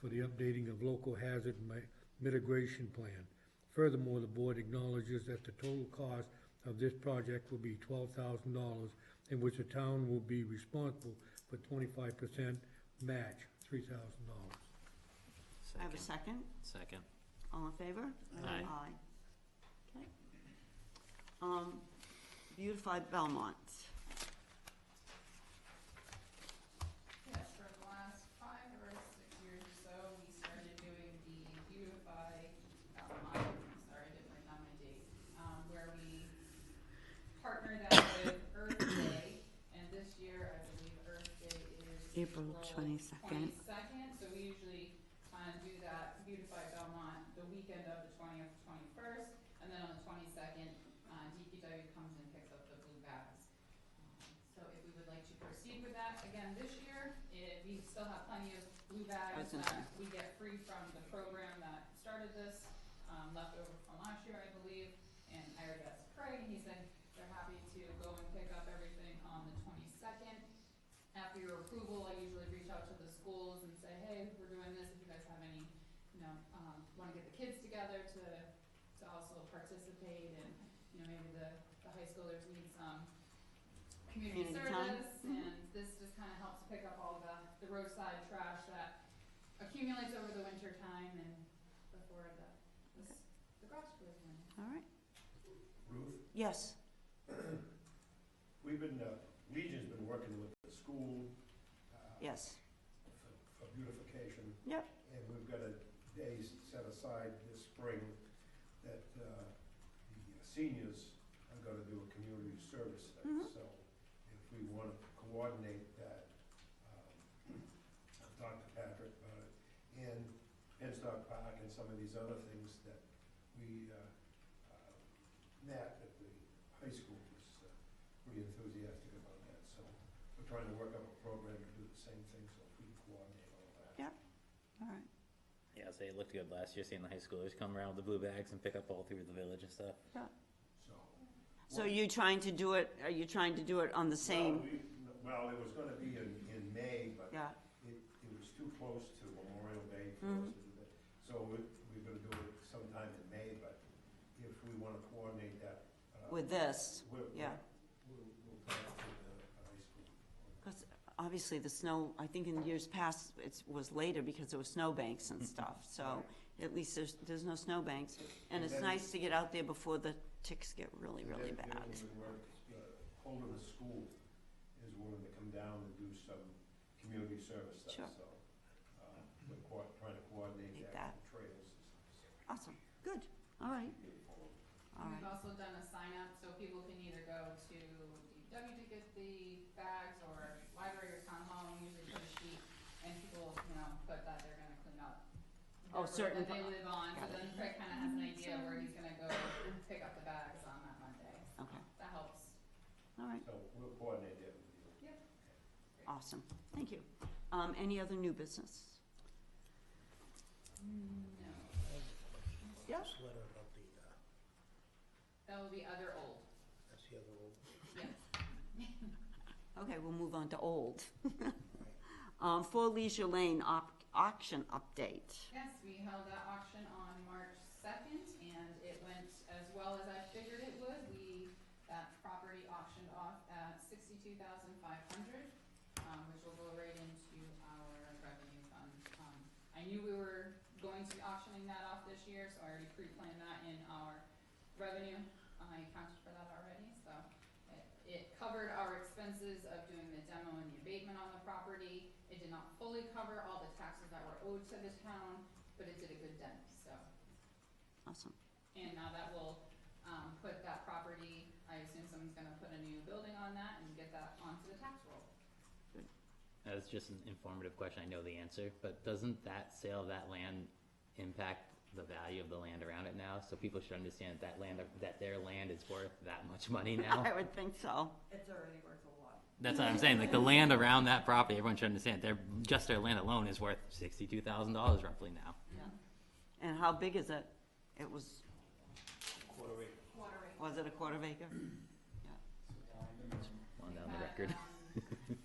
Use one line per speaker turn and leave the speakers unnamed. for the updating of local hazard mi- mitigation plan. Furthermore, the board acknowledges that the total cost of this project will be twelve thousand dollars, in which the town will be responsible for twenty-five percent match, three thousand dollars.
I have a
Second.
second.
Second.
All in favor?
Aye.
Okay. Um, Beautify Belmont.
Yes, for the last five or six years or so, we started doing the beautify, uh, my- I'm sorry, I didn't write down my date, um, where we partnered out with Earth Day, and this year, I believe Earth Day is
April 22nd.
Twenty-second, so we usually, uh, do that beautify Belmont the weekend of the twentieth, twenty-first, and then on the twenty-second, uh, DPW comes and picks up the blue bags. Um, So if we would like to proceed with that again this year, if we still have plenty of blue
I was
bags
gonna
that we get free from the program that started this, um, left over from last year, I believe. And I already asked Craig, and he said they're happy to go and pick up everything on the twenty-second. After your approval, I usually reach out to the schools and say, hey, we're doing this, if you guys have any, you know, um, wanna get the kids together to, to also participate and, you know, maybe the, the high schoolers need some community
Community time.
service, and this just kinda helps pick up all the, the roadside trash that accumulates over the winter time and before the, the, s- the grass grows in.
All right.
Ruth,
Yes.
we've been, uh, Legion's been working with the school. uh,
Yes.
for- For beautification.
Yep.
And we've got a day s- set aside this spring that uh, the seniors are gonna do a community service day.
Mhm.
So if we want to coordinate that, um, I've talked to Patrick about it, and Penstock Park and some of these other things that we, uh, uh, Matt at the high school was uh, pretty enthusiastic about that, so we're trying to work up a program to do the same thing, so if we can coordinate all that.
Yeah. All right.
Yeah, so it looked good last year, seeing the high schoolers come around with the blue bags and pick up all through the village and stuff.
So.
So
what-
you're trying to do it, are you trying to do it on the
Well,
same?
we, well, it was gonna be in, in May, but
Yeah,
it, it was too close to Memorial Day for
Mhm.
us to do that. So we, we're gonna do it sometime in May, but if we wanna coordinate that. uh,
with this,
we'll-
yeah.
We'll, we'll talk to the high school.
because obviously the snow, I think in years past, it was later because there were snowbanks and stuff, so at least there's, there's no snowbanks. And
And
it's
then-
nice to get out there before the ticks get really, really
Then-
bad.
Then we would work, uh, Holden the School is willing to come down and do some community service
Sure.
stuff, so. uh, We're co- trying to coordinate
Like
that with trails and stuff.
Awesome, good, all right, all
We've
right,
also done a sign up, so people can either go to DPW to get the bags or library or town hall, and usually put a sheet, and people, you know, put that they're gonna clean up.
Oh,
the road
certain
That they
pa-
live on, so
got it.
then Craig kinda has an idea where he's gonna go pick up the bags on that Monday,
okay,
that helps.
all right,
So we'll coordinate that with you.
awesome, thank you. Um, any other new business?
No,
Yeah.
This letter about the, uh,
that will be other old,
that's the other old,
yes.
Okay, we'll move on to old. Um, Four Leisure Lane op- auction update.
Yes, we held that auction on March second, and it went as well as I figured it would. We, that property auctioned off at sixty-two thousand five hundred, um, which will go right into our revenue fund. Um, I knew we were going to be auctioning that off this year, so I already pre-planned that in our revenue. I accounted for that already, so it- it covered our expenses of doing the demo and the abatement on the property. It did not fully cover all the taxes that were owed to the town, but it did a good dent, so.
Awesome,
And now that will, um, put that property, I assume someone's gonna put a new building on that and get that onto the tax roll.
That's just an informative question, I know the answer, but doesn't that sale of that land impact the value of the land around it now? So people should understand that land, that their land is worth that much money now?
I would think so.
It's already worth a lot.
That's what I'm saying, like the land around that property, everyone should understand, their, just their land alone is worth sixty-two thousand dollars roughly now.
And how big is it? It was,
quarter acre.
was it a quarter of acre?
On down
Had,
the record.
um,